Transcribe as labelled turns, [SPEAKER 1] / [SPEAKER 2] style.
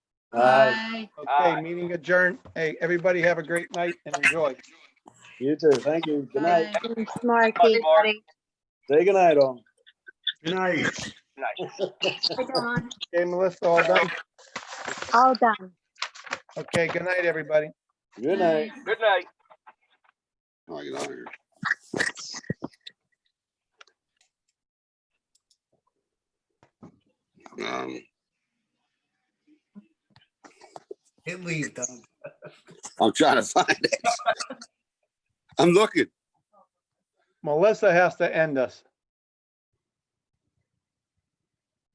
[SPEAKER 1] Aye.
[SPEAKER 2] Aye.
[SPEAKER 3] Okay, meeting adjourned. Hey, everybody have a great night and enjoy.
[SPEAKER 1] You too. Thank you. Good night.
[SPEAKER 4] Thanks, Mark.
[SPEAKER 2] Bye, Mark.
[SPEAKER 1] Say good night, all.
[SPEAKER 5] Good night.
[SPEAKER 2] Nice.
[SPEAKER 3] Okay, Melissa, all done?
[SPEAKER 4] All done.
[SPEAKER 3] Okay, good night, everybody.
[SPEAKER 1] Good night.
[SPEAKER 2] Good night.
[SPEAKER 5] How do I get out of here? Um,
[SPEAKER 6] It leaves, Doug.
[SPEAKER 5] I'm trying to find it. I'm looking.
[SPEAKER 3] Melissa has to end us.